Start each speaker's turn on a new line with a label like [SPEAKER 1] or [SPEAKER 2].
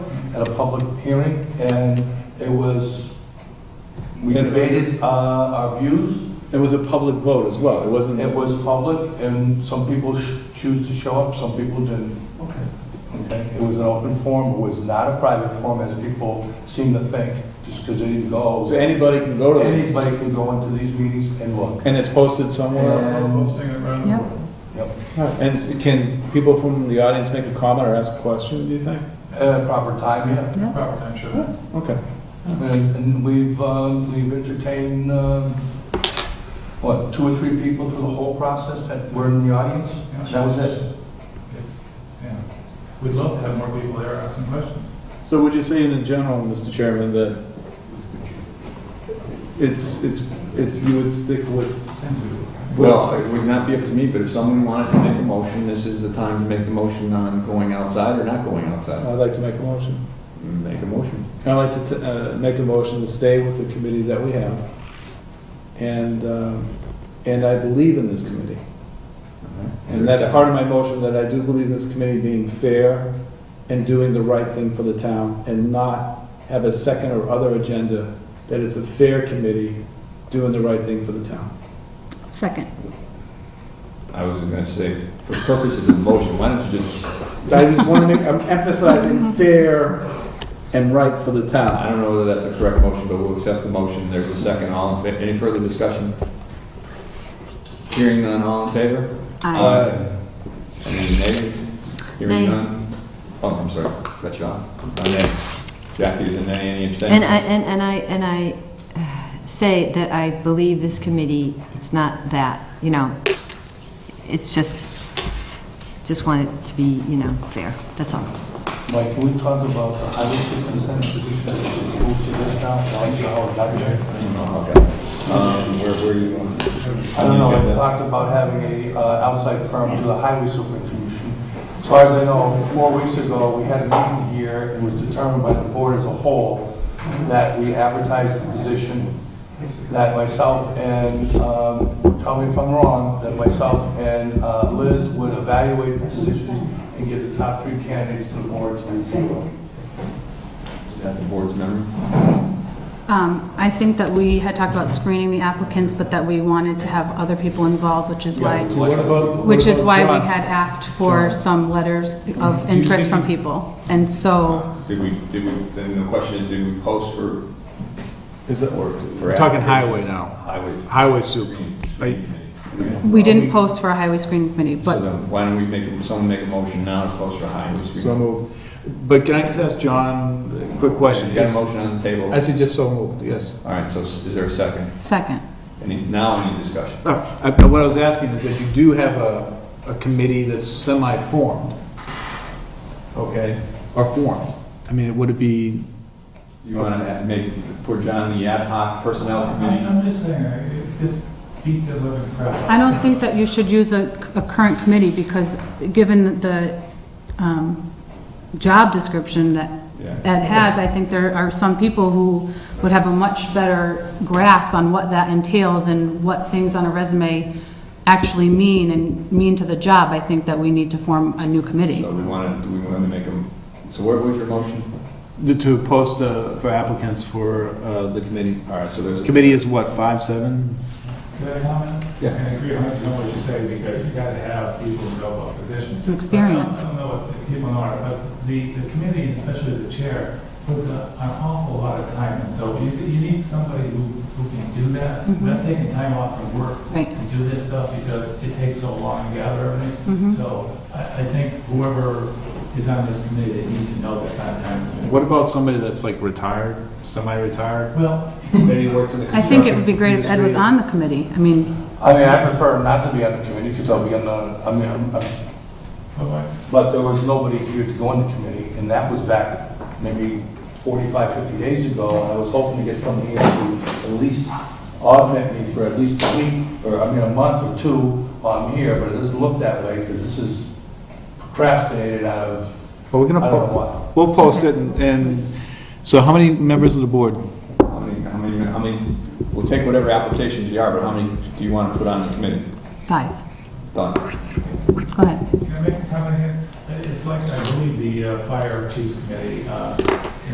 [SPEAKER 1] at a public hearing, and it was, we debated uh, our views.
[SPEAKER 2] It was a public vote as well, it wasn't,
[SPEAKER 1] It was public, and some people sh- choose to show up, some people didn't.
[SPEAKER 2] okay.
[SPEAKER 1] Okay, It was an open forum, it was not a private forum, as people seem to think, just because they didn't
[SPEAKER 2] So
[SPEAKER 1] go.
[SPEAKER 2] anybody can go to these,
[SPEAKER 1] Anybody can go into these meetings and look.
[SPEAKER 2] and it's posted somewhere?
[SPEAKER 1] And-
[SPEAKER 3] Yep.
[SPEAKER 1] Yep.
[SPEAKER 2] And can people from the audience make a comment or ask a question, do you think?
[SPEAKER 1] At a proper time, yeah.
[SPEAKER 2] Okay.
[SPEAKER 1] And and we've, um, we've entertained, um, what, two or three people through the whole process that were in the audience? That was it?
[SPEAKER 4] We'd love to have more people there asking questions.
[SPEAKER 2] So would you say in general, Mr. Chairman, that it's, it's, it's, you would stick with?
[SPEAKER 5] Well, it would not be up to me, but if someone wanted to make a motion, this is the time to make the motion on going outside or not going outside.
[SPEAKER 2] I'd like to make a motion.
[SPEAKER 5] Make a motion.
[SPEAKER 2] I'd like to, t- uh, make a motion to stay with the committee that we have. And, um, and I believe in this committee. And that's part of my motion, that I do believe in this committee being fair and doing the right thing for the town and not have a second or other agenda, that it's a fair committee doing the right thing for the town.
[SPEAKER 3] Second.
[SPEAKER 5] I was gonna say, for purposes of motion, why don't you just,
[SPEAKER 2] I just want to make, I'm emphasizing fair and right for the
[SPEAKER 5] I
[SPEAKER 2] town.
[SPEAKER 5] don't know whether that's a correct motion, but we'll accept the motion. There's a second. All in, fa- any further discussion? Hearing none, all in favor?
[SPEAKER 3] Aye.
[SPEAKER 5] Any nays? Hearing
[SPEAKER 3] Nay.
[SPEAKER 5] none? Oh, I'm sorry, cut you off. Uh, nay. Jackie, is it nay, any abstentions?
[SPEAKER 3] And I, and and I, and I uh, say that I believe this committee, it's not that, you know, it's just, just want it to be, you know, fair, that's all.
[SPEAKER 1] Mike, can we talk about the highway superintendent position that was moved to this now? Why is it all
[SPEAKER 5] I
[SPEAKER 1] that?
[SPEAKER 5] don't know, Oh, okay. Um, where, where are you going?
[SPEAKER 1] I don't know, I talked about having a uh, outside firm do the highway superintendent. As far as I know, four weeks ago, we had a meeting here, it was determined by the board as a whole that we advertised the position, that myself and, um, tell me if I'm wrong, that myself and uh, Liz would evaluate the position and give the top three candidates to the board to review.
[SPEAKER 5] Is that the board's memory?
[SPEAKER 6] Um, I think that we had talked about screening the applicants, but that we wanted to have other people involved, which is why,
[SPEAKER 1] Yeah, what about-
[SPEAKER 6] which is why we had asked for some letters of interest from people. And so,
[SPEAKER 5] Did we, did we, then the question is, did we post for?
[SPEAKER 7] Is it,
[SPEAKER 5] for- for
[SPEAKER 7] we're talking
[SPEAKER 5] applicants?
[SPEAKER 7] highway now,
[SPEAKER 5] Highway.
[SPEAKER 7] highway super.
[SPEAKER 5] Screen-
[SPEAKER 7] Are you-
[SPEAKER 5] screen
[SPEAKER 6] we didn't post for a highway screening committee,
[SPEAKER 5] So
[SPEAKER 6] but
[SPEAKER 5] then, why don't we make, someone make a motion now to post for highway screen?
[SPEAKER 7] So moved. But can I just ask John a quick question?
[SPEAKER 5] You got a motion on the table?
[SPEAKER 7] I suggest so moved, yes.
[SPEAKER 5] All right, so s- is there a second?
[SPEAKER 6] second,
[SPEAKER 5] Any, now any discussion?
[SPEAKER 7] No, I- I- What I was asking is that you do have a, a committee that's semi-formed, okay, or formed. I mean, would it be,
[SPEAKER 5] You want to make, put John the ad hoc personnel committee?
[SPEAKER 4] I'm just saying, I- it just beat the living crap out of
[SPEAKER 6] I don't think that you should use a, a current committee because given the, um, job description that
[SPEAKER 5] Yeah.
[SPEAKER 6] Ed has, I think there are some people who would have a much better grasp on what that entails and what things on a resume actually mean and mean to the job. I think that we need to form a new committee.
[SPEAKER 5] So we want to, do we want to make them, so what was your motion?
[SPEAKER 7] the- to post uh, for applicants for uh, the committee?
[SPEAKER 5] All right, so there's. a-
[SPEAKER 7] Committee is what, five, seven?
[SPEAKER 4] Can I comment?
[SPEAKER 7] Yeah.
[SPEAKER 4] I agree on what you say, because you gotta have people who know about positions.
[SPEAKER 6] Some experience.
[SPEAKER 4] I don't I don't know what the people are, but the, the committee, especially the chair, puts a- an awful lot of time, and so you, you need somebody who, who can do that.
[SPEAKER 6] Mhm.
[SPEAKER 4] Not taking time off from work
[SPEAKER 6] Right.
[SPEAKER 4] to do this stuff, because it takes so long to gather everything.
[SPEAKER 7] Hmm?
[SPEAKER 6] Mhm.
[SPEAKER 4] So I, I think whoever is on this committee, they need to know that kind of time.
[SPEAKER 7] What about somebody that's like retired, semi-retired?
[SPEAKER 4] Well,
[SPEAKER 7] Maybe works in the
[SPEAKER 6] I think it would be
[SPEAKER 7] construction
[SPEAKER 6] great if Ed was
[SPEAKER 7] industry?
[SPEAKER 6] on the committee. I mean,
[SPEAKER 1] I mean, I prefer not to be on the committee because I'll be on the, I mean, I'm- I'm-
[SPEAKER 4] but
[SPEAKER 1] But there was nobody here to go on the committee, and that was back maybe 45, 50 days ago, and I was hoping to get somebody here to at least augment me for at least a week, or, I mean, a month or two while I'm here, but it doesn't look that way, because this is procrastinated out of,
[SPEAKER 7] Well, we're gonna,
[SPEAKER 1] I don't know
[SPEAKER 7] po-
[SPEAKER 1] what.
[SPEAKER 7] we'll post it, and- and, so how many members of the board?
[SPEAKER 5] How many, how many, how many, we'll take whatever applications you are, but how many do you want to put on the committee?
[SPEAKER 6] five.
[SPEAKER 5] Done.
[SPEAKER 6] Go ahead.
[SPEAKER 4] Can I make a comment here? It's like, I believe, the uh, fire chiefs committee, uh,